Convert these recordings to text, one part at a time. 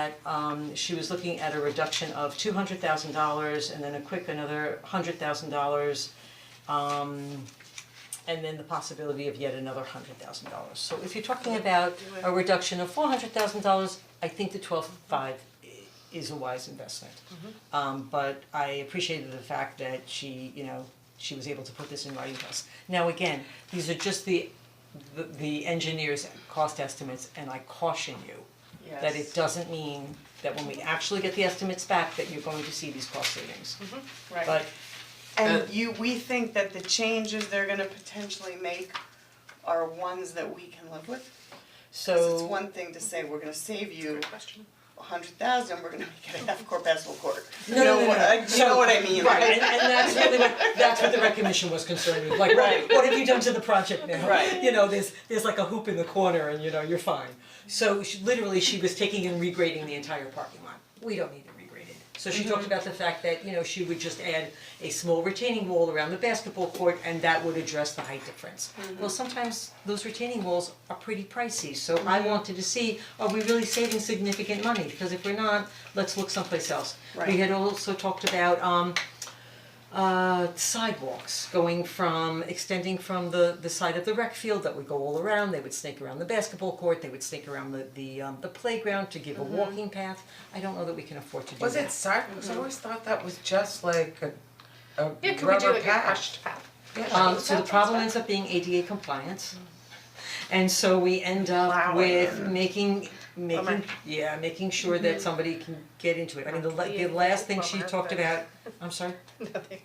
that um she was looking at a reduction of two hundred thousand dollars and then a quick another hundred thousand dollars. Um and then the possibility of yet another hundred thousand dollars. So if you're talking about a reduction of four hundred thousand dollars, I think the twelve five is a wise investment. Um but I appreciated the fact that she, you know, she was able to put this in writing to us. Now again, these are just the the the engineer's cost estimates and I caution you that it Yes. doesn't mean that when we actually get the estimates back, that you're going to see these cost savings. Right. But And you, we think that the changes they're gonna potentially make are ones that we can live with? 'Cause it's so, one thing to say, we're gonna save you a hundred thousand, we're gonna make it a half court basketball court. You No, no, know no, what no. I- You know what I mean, right, and right? and that's really what, that's what the recognition was concerned with, like, Right. what, what have you done to the project now? Right. You know, there's, there's like a hoop in the corner and, you know, you're fine. So she, literally, she was taking and regrading the entire parking lot, we don't need to regrade it. So she talked about the fact that, you know, she would just add a small retaining wall around the basketball court and that would address the height difference. Well, sometimes those retaining walls are pretty pricey, so I wanted to see, are we really saving significant money? Because if we're not, let's look someplace else. We Right. had also talked about um uh sidewalks, going from, extending from the the side of the rec field that would go all around, they would snake around the basketball court, they would snake around the the um the playground to give a walking path. I don't know that we can afford to do that. Mm-hmm. Was it sidewalks? I always thought that was just like a, a rubber patch. Yeah, could we do like a crushed path? Yeah. Um so the problem ends up being ADA compliance. And so we end up with making making, Bummer. yeah, making sure that somebody can get into it. I mean, the la- the Yeah, last thing she bummer, talked but- about, I'm sorry?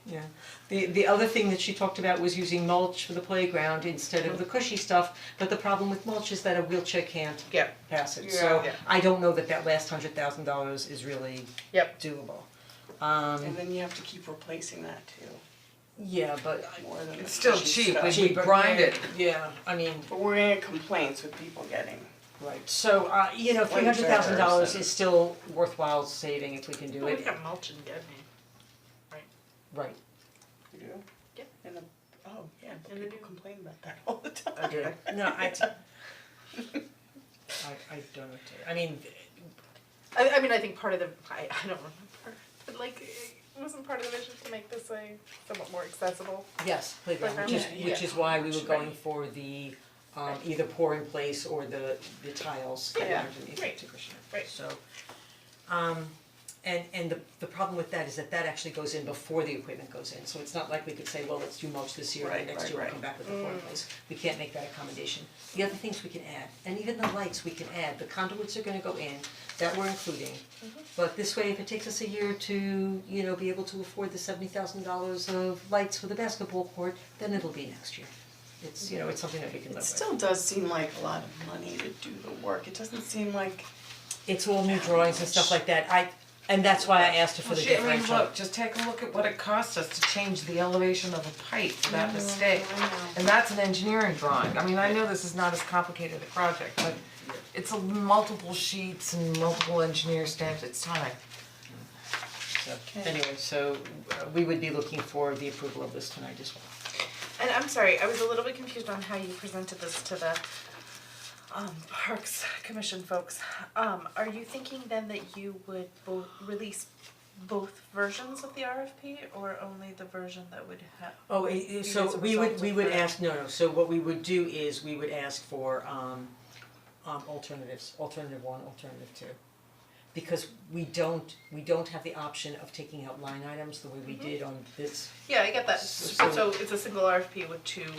Yeah, the the other thing that she talked about was using mulch for the playground instead of the cushy stuff, but the problem with mulch is that a wheelchair can't Yeah. pass it, Yeah. so Yeah. I don't know that that last hundred thousand dollars is really Yep. doable. And then you have to keep replacing that too, Yeah, but more than the It's still cushy cheap, stuff. we- Cheap, but grind it. Yeah, I mean, But we're gonna get complaints with people getting, right, so uh you know, three hundred thousand Oh, dollars is still worthwhile saving if we can do We it, got mulch and dead right, you know? Yeah. And the, oh, yeah, but And the people new- complain about that all the time. Okay. no, I I I don't, know. I mean, I, I mean, I think part of the, I, I don't remember, but like, it wasn't part of the vision to make this like somewhat more accessible. Yes, playground, which is Playground. which is why we were Right. going for the um either pour in place or the the tiles that Yeah. are underneath Right. the cushion, Right. so. Um and and the the problem with that is that that actually goes in before the equipment goes in, so it's not like we could say, well, let's do mulch this year and Right, then next right, year we'll right. come back with a pour in place. We can't make that accommodation. The other things we can add, and even the lights we can add, the conduits are gonna go in, that we're including. But this way, if it takes us a year to, you know, be able to afford the seventy thousand dollars of lights for the basketball court, then it'll be next year. It's, you know, it's something that we can live It with. still does seem like a lot of money to do the work, it doesn't seem like, It's all new drawings and stuff like that, I, and that's why I asked her for Well, the shit, I mean, differential. look, just take a look at what it costs us to change the elevation of a pipe without mistake. And that's an engineering drawing, I mean, I know this is not as complicated a project, but it's a multiple sheets and multiple engineer stamps, it's time. So, anyway, so uh, we would be looking for the approval of this tonight as well. And I'm sorry, I was a little bit confused on how you presented this to the um Parks Commission folks. Um, are you thinking then that you would bo- release both versions of the RFP or only the version that would have? Oh, i- i- as so a we would, result we of would that. ask, no, no, so what we would do is, we would ask for um um alternatives, alternative one, alternative two. Because we don't, we don't have the option of taking out line items the way we did on this, Yeah, I get that, So- so it's a single RFP with two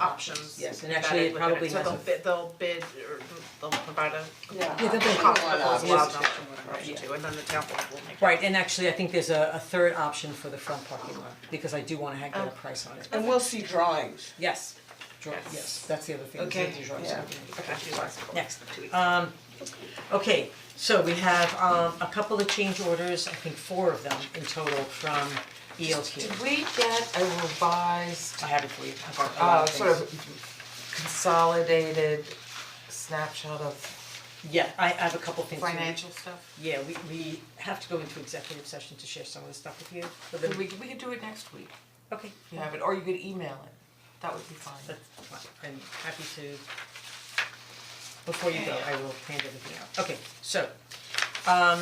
options Yes, and actually it embedded probably within it. so has they'll a- bid, they'll bid or they'll provide a yeah. Yeah, the big cost one proposal option. option, option two, and then the town board will make. right, and actually, I think there's a a third option for the front parking lot, because I do wanna ha- get a price on it. And we'll see drawings. Yes, draw, Yes. yes, that's the other thing, is that Okay, the drawings yeah. are being- Okay, Next. Two weeks. Um, okay, so we have um a couple of change orders, I think four of them in total from ELQ. Did we get a revised, I have it for you, I've got a lot uh, of sort things. of consolidated snapshot of Yeah, I I have a couple things. financial stuff? Yeah, we we have to go into executive session to share some of the stuff with you, but Could then, We, we could do it next week, okay, if you have it, or you could email it, that would be fine. that's fine, I'm happy to. Before you go, I will hand everything out, okay, so, Um